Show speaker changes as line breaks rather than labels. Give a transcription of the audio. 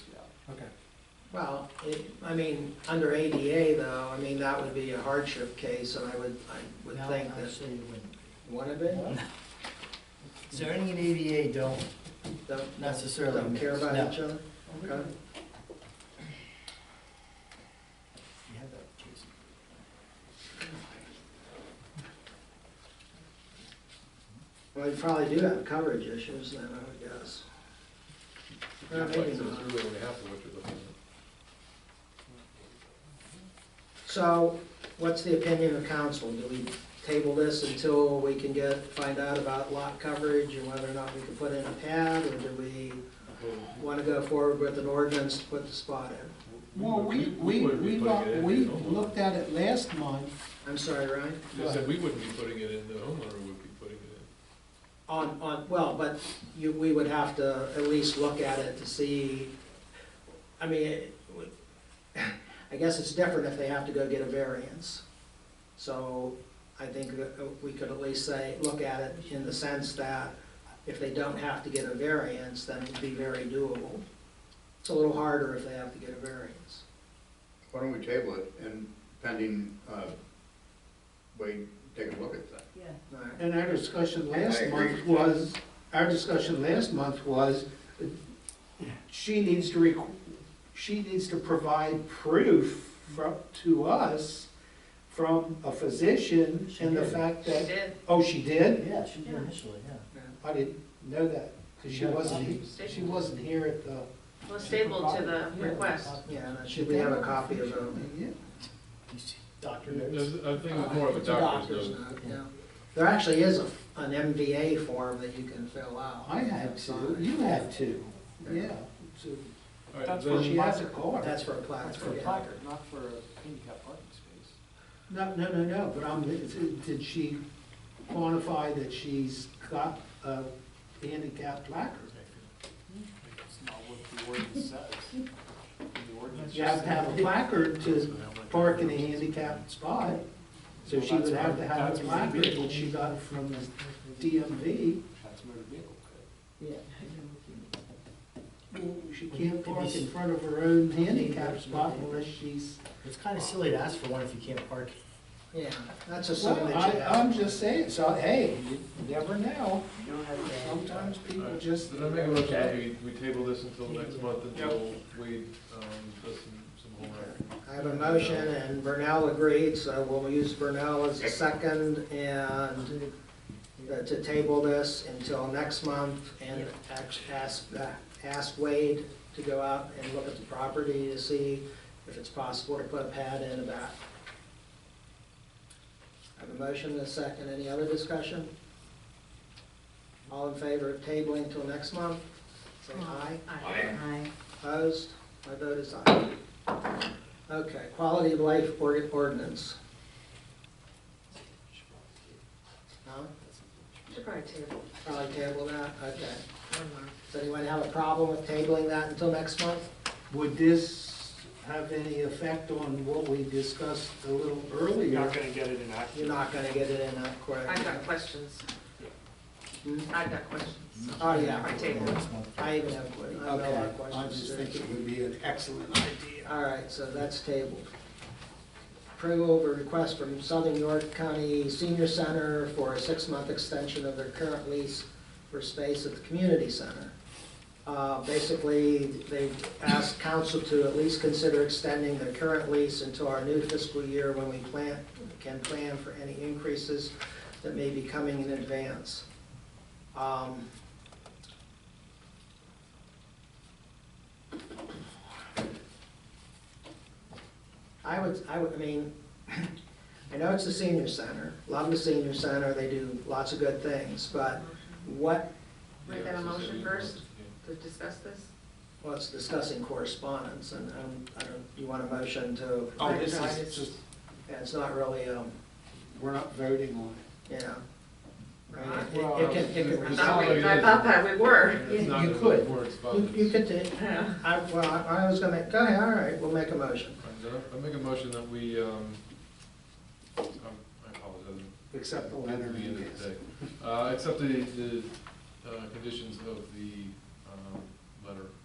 Well, it, I mean, under ADA though, I mean, that would be a hardship case, and I would, I would
No,
think that
Actually, it wouldn't.
one of it,
Zoning and ADA E don't
don't
necessarily
don't care
mix.
about
No.
each other? Okay.
You have that, Jason.
Well, you probably do have coverage issues then, I would guess. Or maybe not. So, what's the opinion of council? Do we table this until we can get, find out about lot coverage and whether or not we can put in a pad? Or do we want to go forward with an ordinance to put the spot in?
Well, we, we,
wouldn't
we,
be putting it
lo-
in
we
the homeowner.
looked at it last month,
I'm sorry, Ryan?
They said we wouldn't be putting it in, the homeowner would be putting it in.
On, on, well, but you, we would have to at least look at it to see, I mean, it would- I guess it's different if they have to go get a variance. So I think that uh, we could at least say, look at it in the sense that if they don't have to get a variance, then it'd be very doable. It's a little harder if they have to get a variance.
Why don't we table it and pending, uh, Wade taking a look at that?
Yeah,
All right.
and our discussion
I
last
agree.
month was, our discussion last month was, uh, she needs to requ, she needs to provide proof from, to us from a physician
She
and the
did.
fact
she
that,
did,
oh, she did?
Yeah, she did
Yeah.
initially, yeah.
I didn't know that, because she
Yeah,
wasn't,
she-
she wasn't here at the.
well, stable to the request.
Yeah, and should we have a copy of it?
Yeah.
Doctor
There's-
notes.
I think it's more of a
It's doctor's
doctor's note.
note, yeah. There actually is a, an MVA form that you can fill out.
I have two, you have two, yeah. so-
All right,
That's
then-
what
She has a car.
That's for a plaque.
That's for a placard, not for a handicap parking space.
No, no, no, no, but I'm, did she quantify that she's got a handicap placard?
It's not what the ordinance says. The ordinance
You have
just
to have a
says-
placard to park in a handicapped spot, so she would have to have a placard, which she got from the DMV.
That's motor vehicle code.
She can't park in front of her own handicap spot unless she's.
It's kind of silly to ask for one if you can't park.
Yeah, that's a
Well,
something that
I,
you
I'm
have.
just saying, so, hey, you never know, sometimes people just.
Did I make a motion that we, we table this until next month until we, um, does some, some homework?
I have a motion and Burnell agreed, so we'll use Burnell as a second and uh, to table this until next month and ax- ask, uh, ask Wade to go out and look at the property to see if it's possible to put a pad in about. I have a motion and a second. Any other discussion? All in favor of tabling until next month? Say aye.
Aye.
Opposed? My vote is aye. Okay, quality of life or- ordinance. No?
Should probably table.
Probably table that, okay.
One more.
Does anyone have a problem with tabling that until next month?
Would this have any effect on what we discussed a little
You're
earlier?
not gonna get it in action.
You're not gonna get it in that quick.
I've got questions,
Hmm?
I've got questions.
Oh, yeah.
Probably table it.
I even have que- I have a lot of
Okay, I
questions.
just
too.
think it would be an excellent idea.
All right, so that's tabled. Approval of a request from Southern York County Senior Center for a six-month extension of their current lease for space at the community center. Uh, Basically, they've asked council to at least consider extending their current lease until our new fiscal year when we plan, can plan for any increases that may be coming in advance. Um, I would, I would, I mean, I know it's the senior center, love the senior center, they do lots of good things, but what,
Make that a motion first
Yeah.
to discuss this?
well, it's discussing correspondence, and um, I don't, you want a motion to,
Oh, this
Right,
is just,
and it's not really, um,
we're not voting on it.
you know. I mean, it- It can, it can
I
It's
thought
not
resolve.
we,
like
I
it
thought
is.
that we were.
It's not
You
in the
could.
You-
correspondence.
You could, do-
Yeah.
I, well, I I was gonna, go ahead, all right, we'll make a motion.
Alright, then I I make a motion that we, um, um, I apologize.
Except the
At
letter
the
and
end of the day. Uh, except the, the, uh, conditions of the, um, letter